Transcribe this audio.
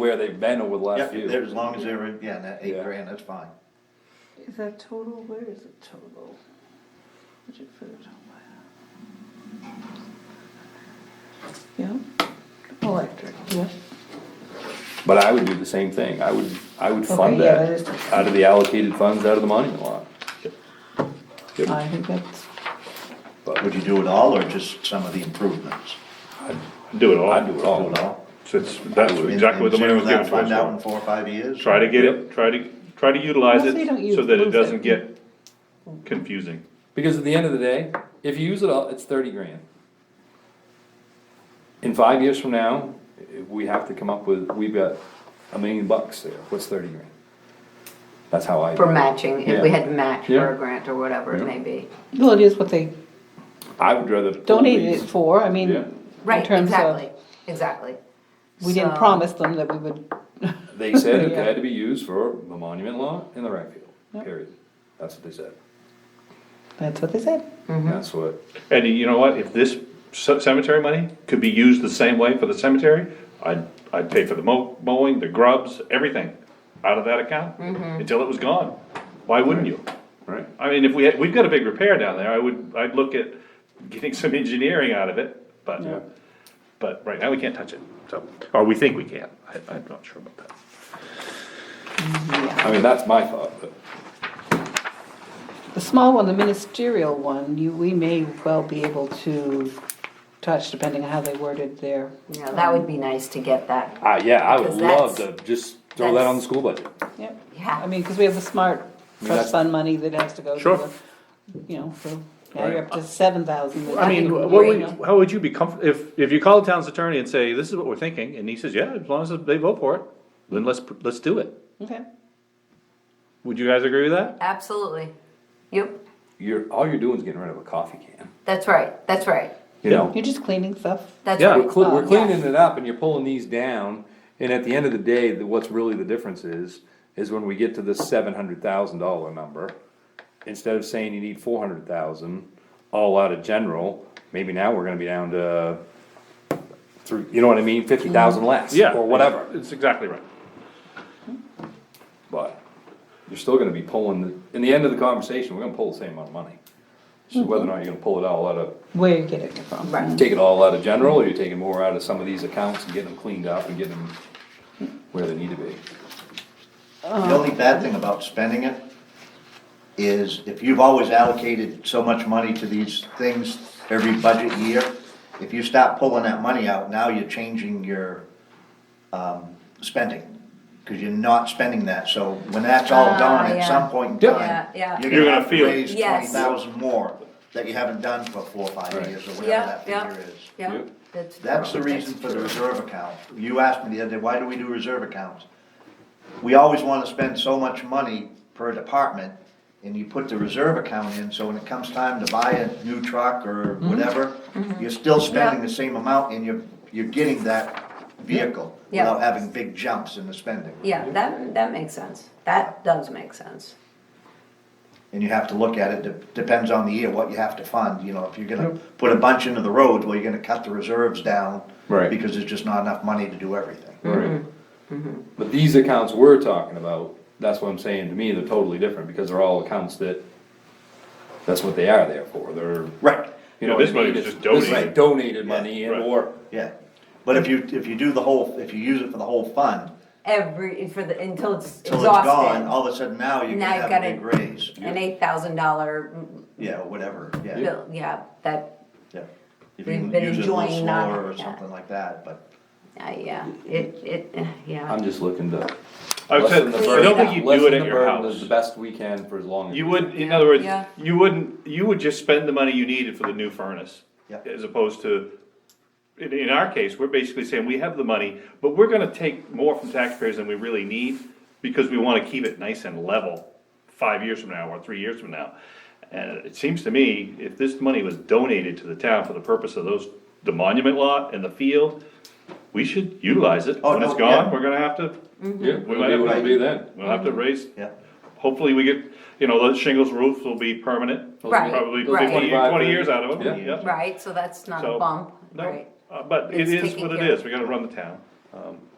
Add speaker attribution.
Speaker 1: where they've been over the last
Speaker 2: Yep,
Speaker 1: few.
Speaker 2: there- as long as they're, in- yeah, and that eight
Speaker 1: Yeah.
Speaker 2: grand, that's fine.
Speaker 3: Is that total? Where is it total? Budget for the total. Oh, Yeah, electric, yeah.
Speaker 1: But I would do the same thing, I would, I would
Speaker 3: Okay,
Speaker 1: fund
Speaker 3: yeah,
Speaker 1: that
Speaker 3: that is-
Speaker 1: out of the allocated funds, out of the monument lot. Good.
Speaker 3: I think that's,
Speaker 2: Would
Speaker 1: But
Speaker 2: you do it all or just some of the improvements?
Speaker 4: Do it all.
Speaker 1: I'd do it
Speaker 2: Do
Speaker 1: all.
Speaker 2: it all?
Speaker 4: So it's, that was exactly what the money was given to
Speaker 2: Find out in
Speaker 4: us for.
Speaker 2: four or five years?
Speaker 4: Try to get it, try to, try to utilize
Speaker 3: Unless they don't
Speaker 4: it
Speaker 3: use-
Speaker 4: so that it
Speaker 3: lose
Speaker 4: doesn't
Speaker 3: it.
Speaker 4: get confusing.
Speaker 1: Because at the end of the day, if you use it all, it's thirty grand. In five years from now, eh, we have to come up with, we've got a million bucks there, what's thirty grand? That's how I.
Speaker 5: For matching, if we
Speaker 1: Yeah.
Speaker 5: had to match
Speaker 1: Yeah.
Speaker 5: for a grant or whatever
Speaker 1: Yeah.
Speaker 5: it may be.
Speaker 3: well, it is what they
Speaker 1: I would rather.
Speaker 3: donated it for, I mean,
Speaker 1: Yeah.
Speaker 3: in
Speaker 5: Right,
Speaker 3: terms
Speaker 5: exactly,
Speaker 3: of,
Speaker 5: exactly.
Speaker 3: we didn't
Speaker 5: So-
Speaker 3: promise them that we would,
Speaker 1: They said it
Speaker 3: Yeah.
Speaker 1: had to be used for the monument lot and the rec field,
Speaker 3: Yep.
Speaker 1: period, that's what they said,
Speaker 3: that's what they said.
Speaker 1: that's what,
Speaker 4: And you know what, if this ce- cemetery money could be used the same way for the cemetery, I'd, I'd pay for the mow- mowing, the grubs, everything out of that account
Speaker 3: Mm-hmm.
Speaker 4: until it was gone. Why wouldn't you?
Speaker 1: right?
Speaker 4: I mean, if we, had- we've got a big repair down there, I would, I'd look at getting some engineering out of it,
Speaker 1: Yeah.
Speaker 4: but, but right now we can't touch it, so, or we think we can, I, I'm not sure about that.
Speaker 1: I mean, that's my thought, but
Speaker 3: The small one, the ministerial one, you, we may well be able to touch, depending on how they worded their.
Speaker 5: You know, that would be nice to get that,
Speaker 1: I, Uh, yeah, I would
Speaker 5: Because
Speaker 1: love to
Speaker 5: that's-
Speaker 1: just throw that on the school budget.
Speaker 3: Yep. I
Speaker 5: yeah,
Speaker 3: mean, because we have the smart
Speaker 1: mean, that's-
Speaker 3: trust fund money that has to go to
Speaker 4: Sure.
Speaker 3: the, you know, so now you're up to seven thousand.
Speaker 4: I mean,
Speaker 5: think
Speaker 4: what would,
Speaker 5: we-
Speaker 4: how would you be comfort, if, if you call the town's attorney and say, this is what we're thinking, and he says, yeah, as long as they vote for it, then let's, let's do it.
Speaker 3: Okay,
Speaker 4: Would you guys agree with that?
Speaker 5: absolutely. Yep,
Speaker 1: You're, all you're doing is getting rid of a coffee can,
Speaker 5: that's right, that's right,
Speaker 1: you
Speaker 4: Yeah.
Speaker 1: know?
Speaker 3: you're just cleaning stuff.
Speaker 5: that's
Speaker 4: Yeah,
Speaker 5: right.
Speaker 1: We're cle- we're
Speaker 3: Oh,
Speaker 1: cleaning it up and you're pulling these down, and at the end of the day, the- what's really the difference is, is when we get to the seven hundred thousand dollar number, instead of saying you need four hundred thousand, all out of general, maybe now we're gonna be down to three, you know what I mean, fifty thousand less,
Speaker 4: Yeah.
Speaker 1: or whatever,
Speaker 4: It's exactly right.
Speaker 1: but you're still gonna be pulling, the- in the end of the conversation, we're gonna pull the same amount of money. It's just whether or not you're gonna pull it all out of
Speaker 3: Where you get it from?
Speaker 5: Right.
Speaker 1: take it all out of general, or you're taking more out of some of these accounts and getting them cleaned up and getting them where they need to be.
Speaker 2: The only bad thing about spending it is if you've always allocated so much money to these things every budget year, if you stop pulling that money out, now you're changing your, um, spending. Cause you're not spending that, so when that's all
Speaker 5: Ah,
Speaker 2: done, at
Speaker 5: yeah.
Speaker 2: some point in
Speaker 1: Yeah.
Speaker 2: time,
Speaker 5: Yeah, yeah.
Speaker 2: you're
Speaker 4: You're
Speaker 2: gonna
Speaker 4: gonna
Speaker 2: have to
Speaker 4: feel it.
Speaker 2: raise twenty
Speaker 5: Yes.
Speaker 2: thousand more that you haven't done for four or five
Speaker 1: Right.
Speaker 2: years or whatever
Speaker 5: Yeah,
Speaker 2: that
Speaker 5: yeah,
Speaker 2: figure is.
Speaker 5: yeah.
Speaker 1: Yep.
Speaker 2: That's the reason for the reserve account. You asked me the other day, why do we do reserve accounts? We always wanna spend so much money per department, and you put the reserve account in, so when it comes time to buy a new truck or whatever, you're still spending
Speaker 5: Mm-hmm. Yeah.
Speaker 2: the same amount and you're, you're getting that vehicle
Speaker 5: Yeah.
Speaker 2: without having big jumps in the spending.
Speaker 5: Yeah, that, that makes sense, that does make sense.
Speaker 2: And you have to look at it, de- depends on the year, what you have to fund, you know, if you're gonna put a bunch into the roads, well, you're gonna cut the reserves down.
Speaker 1: Right.
Speaker 2: Because there's just not enough money to do everything.
Speaker 5: Mm.
Speaker 1: Right. But these accounts we're talking about, that's what I'm saying, to me, they're totally different, because they're all accounts that, that's what they are there for, they're,
Speaker 2: Right.
Speaker 1: you
Speaker 4: Yeah,
Speaker 1: know what I mean?
Speaker 4: this money was
Speaker 1: It's-
Speaker 4: just
Speaker 1: this is
Speaker 4: donated.
Speaker 1: Donated money,
Speaker 2: Yeah,
Speaker 1: and
Speaker 4: right.
Speaker 1: or,
Speaker 2: Yeah, but if you, if you do the whole, if you use it for the whole fund,
Speaker 5: Every, for the, until it's
Speaker 2: till it's gone,
Speaker 5: exhausted,
Speaker 2: all of a sudden now you're gonna
Speaker 5: Now
Speaker 2: have
Speaker 5: you've
Speaker 2: a big
Speaker 5: gotta-
Speaker 2: raise.
Speaker 5: an eight thousand dollar
Speaker 2: Yeah, or whatever, yeah,
Speaker 5: bill, yeah, that,
Speaker 2: yeah. If you
Speaker 5: We've
Speaker 2: can
Speaker 5: been
Speaker 2: use it a little
Speaker 5: enjoying not
Speaker 2: slower or
Speaker 5: having that.
Speaker 2: something like that, but
Speaker 5: uh, yeah, it, it, uh, yeah.
Speaker 1: I'm just looking to.
Speaker 4: I've said,
Speaker 1: lessen the
Speaker 4: I don't
Speaker 1: burden-
Speaker 4: think you'd do
Speaker 1: lessen
Speaker 4: it
Speaker 1: the
Speaker 4: at your
Speaker 1: burden
Speaker 4: house.
Speaker 1: The best we can for as long as.
Speaker 4: You would, in other words,
Speaker 5: Yeah.
Speaker 4: you wouldn't, you would just spend the money you needed for the new furnace.
Speaker 2: Yeah.
Speaker 4: As opposed to, in, in our case, we're basically saying, we have the money, but we're gonna take more from taxpayers than we really need, because we wanna keep it nice and level five years from now, or three years from now. And it seems to me, if this money was donated to the town for the purpose of those, the monument lot and the field, we should utilize it.
Speaker 2: Oh,
Speaker 4: When it's
Speaker 2: no, yeah.
Speaker 4: gone, we're gonna have to,
Speaker 1: Yeah,
Speaker 4: We
Speaker 1: we'll
Speaker 4: might
Speaker 1: be,
Speaker 4: have-
Speaker 1: we'll be then.
Speaker 4: we'll have to raise
Speaker 2: yeah.
Speaker 4: Hopefully we get, you know, those shingles roofs will be permanent,
Speaker 5: Right,
Speaker 4: probably
Speaker 5: right.
Speaker 4: 20 20 years out of them,
Speaker 1: Yeah.
Speaker 4: yep.
Speaker 5: Right, so that's not
Speaker 4: So,
Speaker 5: a bump,
Speaker 4: No,
Speaker 5: right?
Speaker 4: uh, But it
Speaker 5: It's
Speaker 4: is
Speaker 5: taken
Speaker 4: what it
Speaker 5: care of.
Speaker 4: is, we gotta run the town. Um,